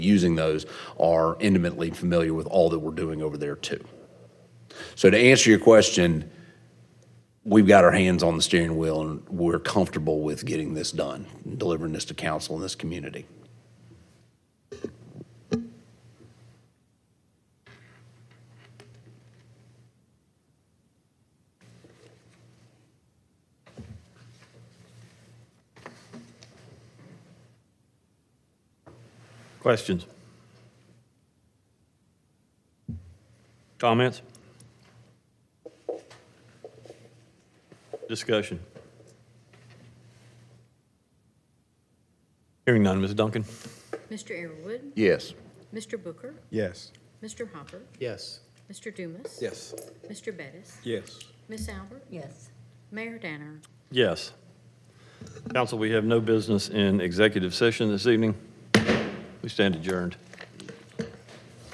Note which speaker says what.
Speaker 1: using those are intimately familiar with all that we're doing over there too. So to answer your question, we've got our hands on the steering wheel and we're comfortable with getting this done, and delivering this to council and this community.
Speaker 2: Questions? Comments? Discussion? Hearing none, Ms. Duncan?
Speaker 3: Mr. Arrowood,
Speaker 1: Yes.
Speaker 3: Mr. Booker,
Speaker 4: Yes.
Speaker 3: Mr. Hopper,
Speaker 5: Yes.
Speaker 3: Mr. Dumas.
Speaker 5: Yes.
Speaker 3: Mr. Bettis,
Speaker 4: Yes.
Speaker 3: Miss Albert. Yes. Mayor Danner.
Speaker 2: Yes. Council, we have no business in executive session this evening. We stand adjourned.